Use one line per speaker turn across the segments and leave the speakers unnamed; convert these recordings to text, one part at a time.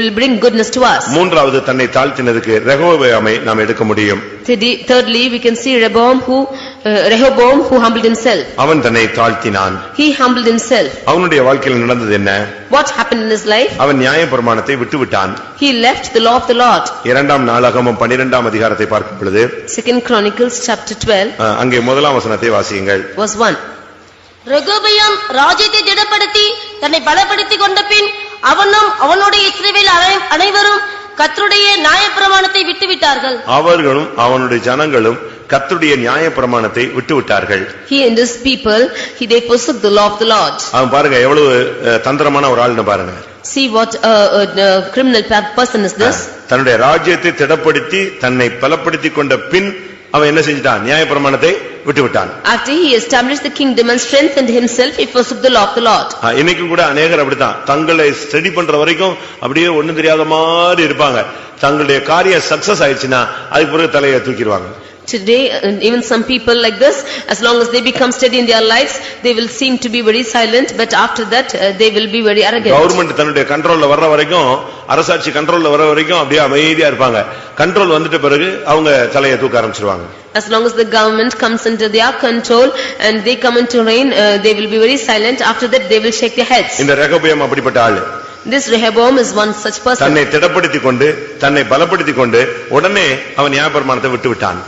will bring goodness to us.
மூன்றாவது தன்னை தாழ்த்தினதுக்கு ரெகோபயாமை நாம் எடுக்க முடியும்
Third- Thirdly, we can see Rehoboam who, uh, Rehoboam who humbled himself.
அவன் தன்னை தாழ்த்தினான்
He humbled himself.
அவனுடைய வாழ்க்கையில் நடந்தது என்ன
What happened in his life?
அவன் நியாய பிரமாணத்தை விட்டுவிட்டான்
He left the law of the Lord.
இரண்டாம் நாளாகமும் பன்னிரெண்டாம் அதிகாரத்தை பார்க்கும் பொழுது
Second Chronicles, chapter 12,
அஹ், அங்கே முதலாம் வசனத்தை வாசியுங்கள்
verse 1.
ரெகோபயாம் ராஜ்யத்தை திடப்படுத்தி தன்னை பலப்படுத்திக் கொண்ட பின் அவனும் அவனுடைய இஸ்ரவேல் அனை- அனைவரும் கர்த்தருடைய நியாயப்பிரமாணத்தை விட்டுவிட்டார்கள்
அவர்களும் அவனுடைய ஜனங்களும் கர்த்தருடைய நியாய பிரமாணத்தை விட்டுவிட்டார்கள்
He and his people, he they forsook the law of the Lord.
அவன் பாருங்க எவ்வளவு அஹ், தந்திரமான ஒரு ஆள்னு பாருங்க
See what a uh, criminal pe- person is this?
தன்னுடைய ராஜ்யத்தை திடப்படுத்தி தன்னை பலப்படுத்திக் கொண்ட பின் அவன் என்ன செஞ்சிட்டான் நியாய பிரமாணத்தை விட்டுவிட்டான்
After he established the kingdom and strengthened himself, he forsook the law of the Lord.
ஆ, இன்னைக்கும் கூட அநேகர் அப்படித்தான் தங்களை ஸ்டடி பண்ற வரைக்கும் அப்படியே ஒண்ணும் தெரியாத மாதிரி இருப்பாங்க தங்களுடைய காரியம் சக்சஸ் ஆயிடுச்சுன்னா அதுக்கு பிறகு தலையை தூக்கிடுவாங்க
Today, and even some people like this, as long as they become steady in their lives, they will seem to be very silent, but after that, uh, they will be very arrogant.
Government தன்னுடைய கண்ட்ரோல்ல வர்ற வரைக்கும் அரசாட்சி கண்ட்ரோல்ல வர்ற வரைக்கும் அப்படியே அமைதியா இருப்பாங்க கண்ட்ரோல் வந்துட்ட பிறகு அவங்க தலையை தூக்க ஆரம்பிச்சிருவாங்க
As long as the government comes under their control and they come into reign, uh, they will be very silent, after that they will shake their heads.
இந்த ரெகபயம் அப்படிப்பட்ட ஆளு
This Rehoboam is one such person.
தன்னை திடப்படுத்திக் கொண்டு தன்னை பலப்படுத்திக் கொண்டு உடனே அவன் நியாயப்பிரமாணத்தை விட்டு விட்டான்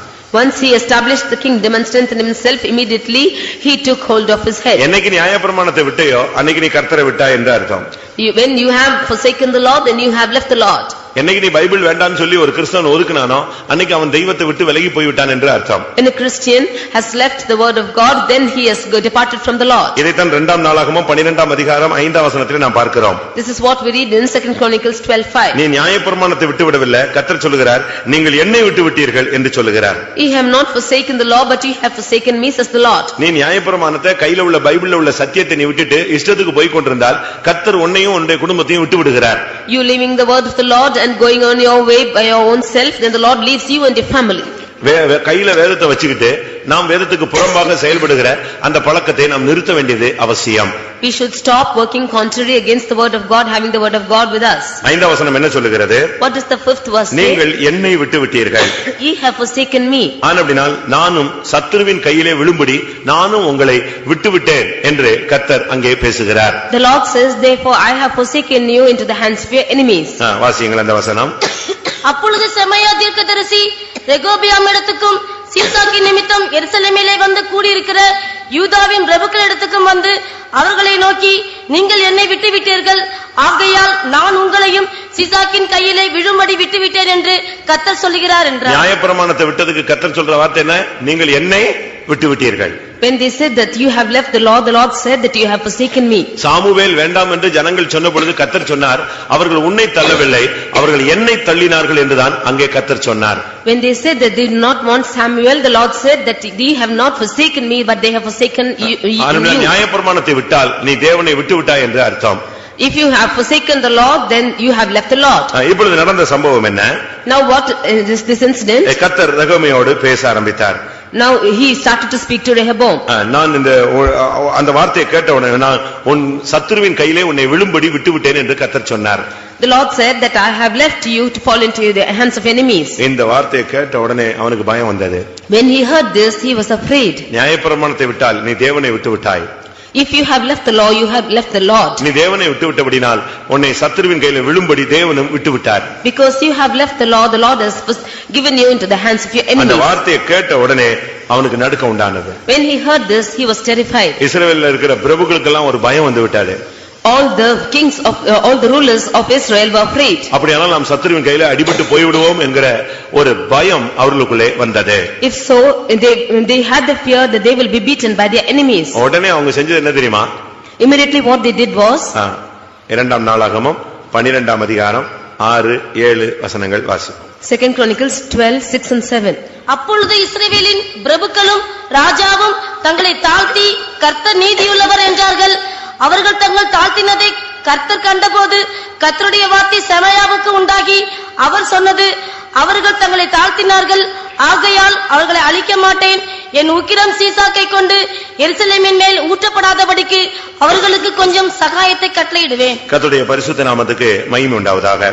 Once he established the kingdom and strengthened himself, immediately he took hold of his head.
என்னைக்கு நியாயப்பிரமாணத்தை விட்டையோ அன்னைக்கு நீ கர்த்தரை விட்டா என்று அர்த்தம்
You- When you have forsaken the Lord, then you have left the Lord.
என்னைக்கு நீ பைபிள் வேண்டாம்னு சொல்லி ஒரு கிறிஸ்தவன் ஒதுக்குனானோ அன்னைக்கு அவன் தெய்வத்தை விட்டு விலகி போய்விட்டான் என்று அர்த்தம்
When a Christian has left the word of God, then he has go- departed from the Lord.
இதைத்தான் இரண்டாம் நாளாகமும் பன்னிரெண்டாம் அதிகாரம் ஐந்தாம் வசனத்தில் நாம் பார்க்கிறோம்
This is what we read in second Chronicles twelve five.
நீ நியாயப்பிரமாணத்தை விட்டு விடவில்லை கர்த்தர் சொல்லுகிறார் நீங்கள் என்னை விட்டு விட்டீர்கள் என்று சொல்லுகிறார்
Ye have not forsaken the law, but ye have forsaken me, says the Lord.
நீ நியாயப்பிரமாணத்தை கையில உள்ள பைபிள்ல உள்ள சத்தியத்தை நீ விட்டுட்டு இஷ்டத்துக்கு போய் கொண்டிருந்தால் கர்த்தர் உன்னையும் உன்னுடைய குடும்பத்தையும் விட்டு விடுகிறார்
You leaving the word of the Lord and going on your way by your own self, then the Lord leaves you and your family.
வே- வே- கையில வேதத்தை வச்சுக்கிட்டு நாம் வேதத்துக்கு புறம்பாக செயல்படுகிற அந்த பழக்கத்தை நாம் நிறுத்த வேண்டியது அவசியம்
We should stop working contrary against the word of God, having the word of God with us.
ஐந்தாம் வசனம் என்ன சொல்லுகிறது
What does the fifth verse say?
நீங்கள் என்னை விட்டு விட்டீர்கள்
Ye have forsaken me.
ஆனபடினால் நானும் சத்துருவின் கையிலே விழும்படி நானும் உங்களை விட்டுவிட்டேன் என்று கர்த்தர் அங்கே பேசுகிறார்
The Lord says, therefore I have forsaken you into the hands of your enemies.
ஆ, வாசியுங்கள் அந்த வசனம்
அப்பொழுது செமையா தீர்க்கதரிசி ரெகோபியாம் இடத்துக்கும் சீசாக்கி நிமித்தம் எருசலேமிலே வந்து கூடியிருக்கிற யூதாவின் பிரபுக்களிடத்துக்கும் வந்து அவர்களை நோக்கி நீங்கள் என்னை விட்டுவிட்டீர்கள் ஆகையால் நான் உங்களையும் சீசாக்கின் கையிலே விழும்படி விட்டுவிட்டேன் என்று கர்த்தர் சொல்லுகிறார் என்றார்
நியாயப்பிரமாணத்தை விட்டதுக்கு கர்த்தர் சொல்ற வார்த்தை என்ன நீங்கள் என்னை விட்டுவிட்டீர்கள்
When they said that you have left the law, the Lord said that you have forsaken me.
சாமுவேல் வேண்டாம் என்று ஜனங்கள் சொன்ன பொழுது கர்த்தர் சொன்னார் அவர்கள் உன்னை தள்ளவில்லை அவர்கள் என்னை தள்ளினார்கள் என்றுதான் அங்கே கர்த்தர் சொன்னார்
When they said that they did not want Samuel, the Lord said that they have not forsaken me, but they have forsaken you.
ஆனால்
you.
நியாயப்பிரமாணத்தை விட்டால் நீ தேவனை விட்டுவிட்டாய் என்று அர்த்தம்
If you have forsaken the Lord, then you have left the Lord.
ஆ, இப்பொழுது நடந்த சம்பவம் என்ன
Now what is this- this incident?
கர்த்தர் ரகமையோடு பேச ஆரம்பித்தார்
Now he started to speak to Rehoboam.
ஆ, நான் இந்த ஒ- அ- அந்த வார்த்தையை கேட்ட உடனே நான் உன் சத்துருவின் கையிலே உன்னை விழும்படி விட்டுவிட்டேன் என்று கர்த்தர் சொன்னார்
The Lord said that I have left you to fall into the hands of enemies.
இந்த வார்த்தையை கேட்ட உடனே அவனுக்கு பயம் வந்தது
When he heard this, he was afraid.
நியாயப்பிரமாணத்தை விட்டால் நீ தேவனை விட்டு விட்டாய்
If you have left the law, you have left the Lord.
நீ தேவனை விட்டு விட்டபடினால் உன்னை சத்துருவின் கையில விழும்படி தேவனும் விட்டு விட்டார்
Because you have left the law, the Lord has fors- given you into the hands of your
அந்த
enemies.
வார்த்தையை கேட்ட உடனே அவனுக்கு நடுக்கம் உண்டானது
When he heard this, he was terrified.
இஸ்ரவேல்ல இருக்கிற பிரபுக்களுக்கெல்லாம் ஒரு பயம் வந்து விட்டாரு
All the kings of, uh, all the rulers of Israel were afraid.
அப்படியானால் நாம் சத்துருவின் கையில அடிபட்டு போய்விடுவோம் என்கிற ஒரு பயம் அவர்களுக்குள்ளே வந்தது
If so, they, they had the fear that they will be beaten by their enemies.
உடனே அவங்க செஞ்சது என்ன தெரியுமா
Immediately what they did was,
ஆ, இரண்டாம் நாளாகமும் பன்னிரெண்டாம் அதிகாரம் ஆறு ஏழு வசனங்கள் வாசி
Second Chronicles twelve, six and seven.
அப்பொழுது இஸ்ரவேலின் பிரபுக்களும் ராஜாவும் தங்களை தாழ்த்தி கர்த்தர் நீதியுள்ளவர் என்றார்கள் அவர்கள் தங்கள் தாழ்த்தினதை கர்த்தர் கண்டபோது கர்த்தருடைய வார்த்தை செமையாவுக்கு உண்டாகி அவர் சொன்னது அவர்கள் தங்களை தாழ்த்தினார்கள் ஆகையால் அவர்களை அழிக்க மாட்டேன் என் உக்கிரம் சீசாக்கை கொண்டு எருசலேமின் மேல் ஊற்றப்படாதபடிக்கு அவர்களுக்கு கொஞ்சம் சகாயத்தை கட்டளையிடுவேன்
கர்த்தருடைய பரிசுத்த நாமத்துக்கு மகிமை உண்டாவதாக